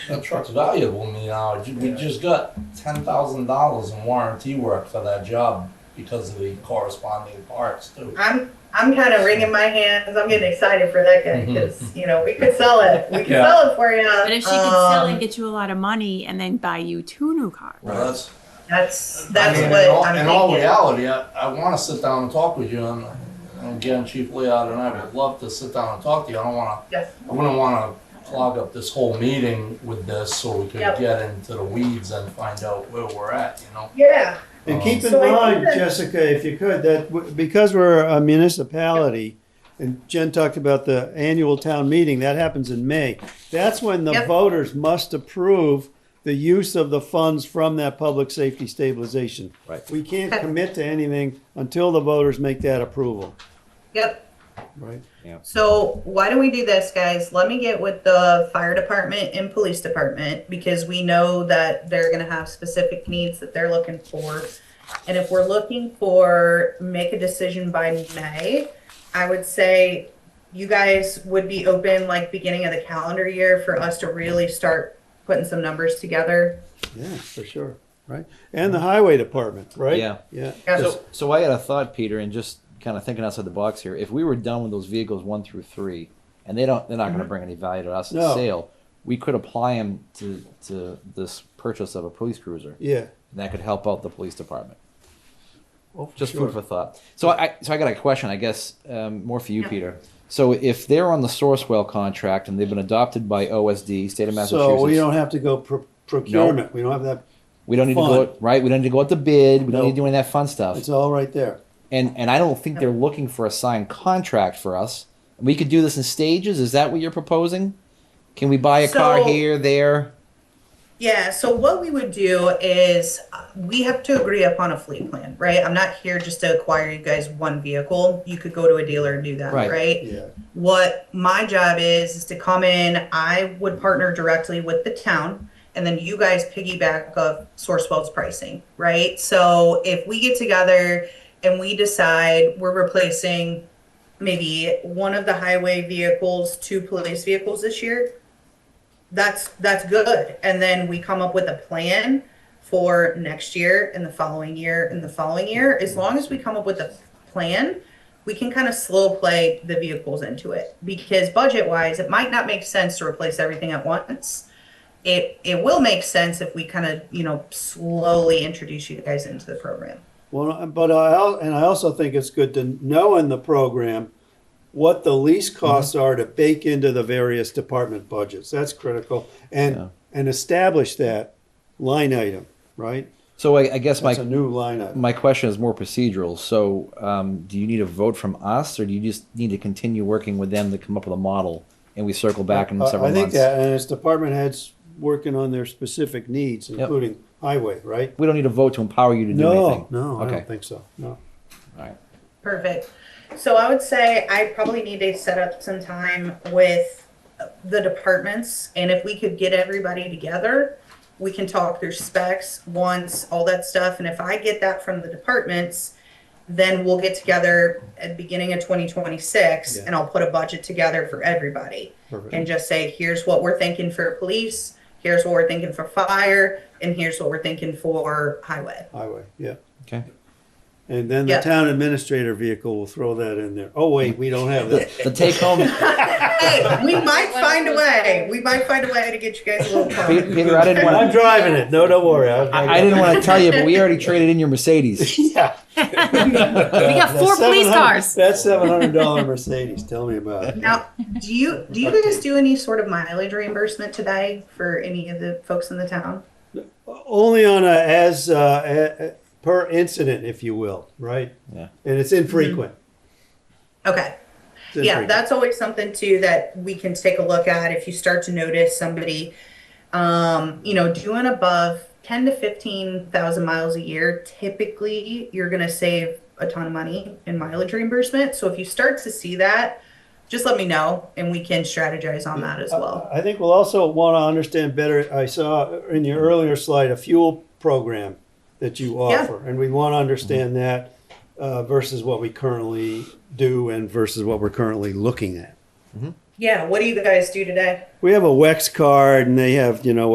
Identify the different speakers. Speaker 1: That truck's valuable, you know, Ju- we
Speaker 2: Yeah.
Speaker 1: just got ten thousand dollars in warranty work for that job because of the corresponding parts too.
Speaker 3: I'm I'm kind of wringing my hands. I'm getting excited for that
Speaker 1: Mm-hmm.
Speaker 3: guy because you know we could sell it. We could
Speaker 2: Yeah.
Speaker 3: sell it for you.
Speaker 4: But if she could sell
Speaker 3: Um,
Speaker 4: and get you a lot of money and then buy you two new cars.
Speaker 1: Well, that's, I
Speaker 3: that's that's
Speaker 1: mean,
Speaker 3: what
Speaker 1: in all,
Speaker 3: I'm
Speaker 1: in
Speaker 3: thinking.
Speaker 1: all reality, I, I wanna sit down and talk with you and, and again, Chief Leod and I would love to sit down and talk to you. I don't wanna,
Speaker 3: yes.
Speaker 1: I wouldn't wanna clog up this whole meeting with this so we could
Speaker 3: Yep.
Speaker 1: get into the weeds and find out where we're at, you know?
Speaker 3: Yeah.
Speaker 2: And keep in
Speaker 3: So I think
Speaker 2: mind,
Speaker 3: that-
Speaker 2: Jessica, if you could, that w- because we're a municipality, and Jen talked about the annual town meeting, that happens in May. That's when the
Speaker 3: Yep.
Speaker 2: voters must approve the use of the funds from that public safety stabilization.
Speaker 5: Right.
Speaker 2: We can't
Speaker 3: Okay.
Speaker 2: commit to anything until the voters make that approval,
Speaker 3: Yep.
Speaker 2: right?
Speaker 3: So why don't we do this, guys? Let me get with the fire department and police department because we know that they're gonna have specific needs that they're looking for. And if we're looking for make a decision by May, I would say you guys would be open like beginning of the calendar year for us to really start putting some numbers together.
Speaker 2: Yeah, for sure, right? And the highway department, right?
Speaker 5: Yeah.
Speaker 2: Yeah.
Speaker 5: So, so I had a thought, Peter, and just kind of thinking outside the box here. If we were done with those vehicles one through three, and they don't, they're not going to bring any value to us
Speaker 2: Mm-hmm. No.
Speaker 5: at sale. We could apply them to to this purchase of a police cruiser, and
Speaker 2: Yeah.
Speaker 5: that could help out the police department.
Speaker 2: Oh, for
Speaker 5: Just
Speaker 2: sure.
Speaker 5: food for thought. So I, so I got a question, I guess, um, more for you,
Speaker 3: Yeah.
Speaker 5: Peter. So if they're on the Sourcewell contract and they've been adopted by OSD, state of Massachusetts,
Speaker 2: So we don't have to go pro- procurement, we don't have that,
Speaker 5: we don't need to
Speaker 2: fund.
Speaker 5: go right. We don't need to go out to bid. We
Speaker 2: No.
Speaker 5: don't need to do any of that fun stuff.
Speaker 2: it's all right there.
Speaker 5: and and I don't think they're looking for a signed contract for us. We could do this in stages. Is that what you're proposing? Can we buy a car
Speaker 3: So-
Speaker 5: here, there?
Speaker 3: Yeah, so what we would do is uh, we have to agree upon a fleet plan, right? I'm not here just to acquire you guys one vehicle. You could go to a dealer and do that,
Speaker 5: Right.
Speaker 3: right?
Speaker 2: Yeah,
Speaker 3: What my job is is to come in, I would partner directly with the town and then you guys piggyback of Sourcewell's pricing, right? So if we get together and we decide we're replacing maybe one of the highway vehicles, two police vehicles this year, that's that's good. And then we come up with a plan for next year and the following year and the following year. As long as we come up with a plan, we can kind of slow play the vehicles into it because budget wise, it might not make sense to replace everything at once. It it will make sense if we kind of you know slowly introduce you guys into the program.
Speaker 2: well, but I, al- and I also think it's good to know in the program what the lease
Speaker 5: Mm-hmm.
Speaker 2: costs are to bake into the various department budgets, that's critical.
Speaker 5: Yeah.
Speaker 2: And, and establish that line item, right?
Speaker 5: So I, I guess my
Speaker 2: That's a new line item.
Speaker 5: my question is more procedural. So um, do you need a vote from us, or do you just need to continue working with them to come up with a model, and we circle back in
Speaker 2: I-
Speaker 5: several
Speaker 2: I think
Speaker 5: months?
Speaker 2: that, and it's department heads working on their specific needs, including highway, right?
Speaker 5: We don't need a vote to empower you to do anything.
Speaker 2: No, no, I
Speaker 5: okay.
Speaker 2: don't think so, no.
Speaker 5: All right.
Speaker 3: Perfect. So I would say I probably need to set up some time with the departments and if we could get everybody together, we can talk through specs, wants, all that stuff. And if I get that from the departments, then we'll get together at the beginning of twenty twenty-six
Speaker 2: Yeah.
Speaker 3: and I'll put a budget together for everybody.
Speaker 2: Perfect.
Speaker 3: And just say, here's what we're thinking for police, here's what we're thinking for fire, and here's what we're thinking for highway.
Speaker 2: Highway, yeah.
Speaker 5: Okay.
Speaker 2: And then the
Speaker 3: Yeah.
Speaker 2: town administrator vehicle will throw that in there. Oh, wait, we don't have that.
Speaker 5: The take home,
Speaker 3: hey, we might find a way. We might find a way to get you guys a little
Speaker 5: Pe-
Speaker 3: car.
Speaker 5: Peter. I didn't want.
Speaker 2: I'm
Speaker 5: to.
Speaker 2: driving it. No, don't worry. I,
Speaker 5: I, I didn't want to tell you, but we already traded in your Mercedes.
Speaker 4: We got four police cars.
Speaker 2: That seven hundred dollar Mercedes. Tell me about it.
Speaker 3: Now, do you do you guys do any sort of mileage reimbursement today for any of the folks in the town?
Speaker 2: Only on a as uh, a, a- per incident, if you will, right?
Speaker 5: Yeah.
Speaker 2: And it's infrequent.
Speaker 3: Okay.
Speaker 2: It's
Speaker 3: Yeah,
Speaker 2: infrequent.
Speaker 3: that's always something too that we can take a look at if you start to notice somebody um, you know, doing above 10 to 15,000 miles a year, typically you're going to save a ton of money in mileage reimbursement. So if you start to see that, just let me know and we can strategize on that as well.
Speaker 2: I think we'll also want to understand better. I saw in your earlier slide a fuel program that you
Speaker 3: Yeah.
Speaker 2: offer, and we want to understand that uh, versus what we currently do and versus what we're currently looking at.
Speaker 3: Yeah, what do you guys do today?
Speaker 2: We have a WEX card and they have, you know,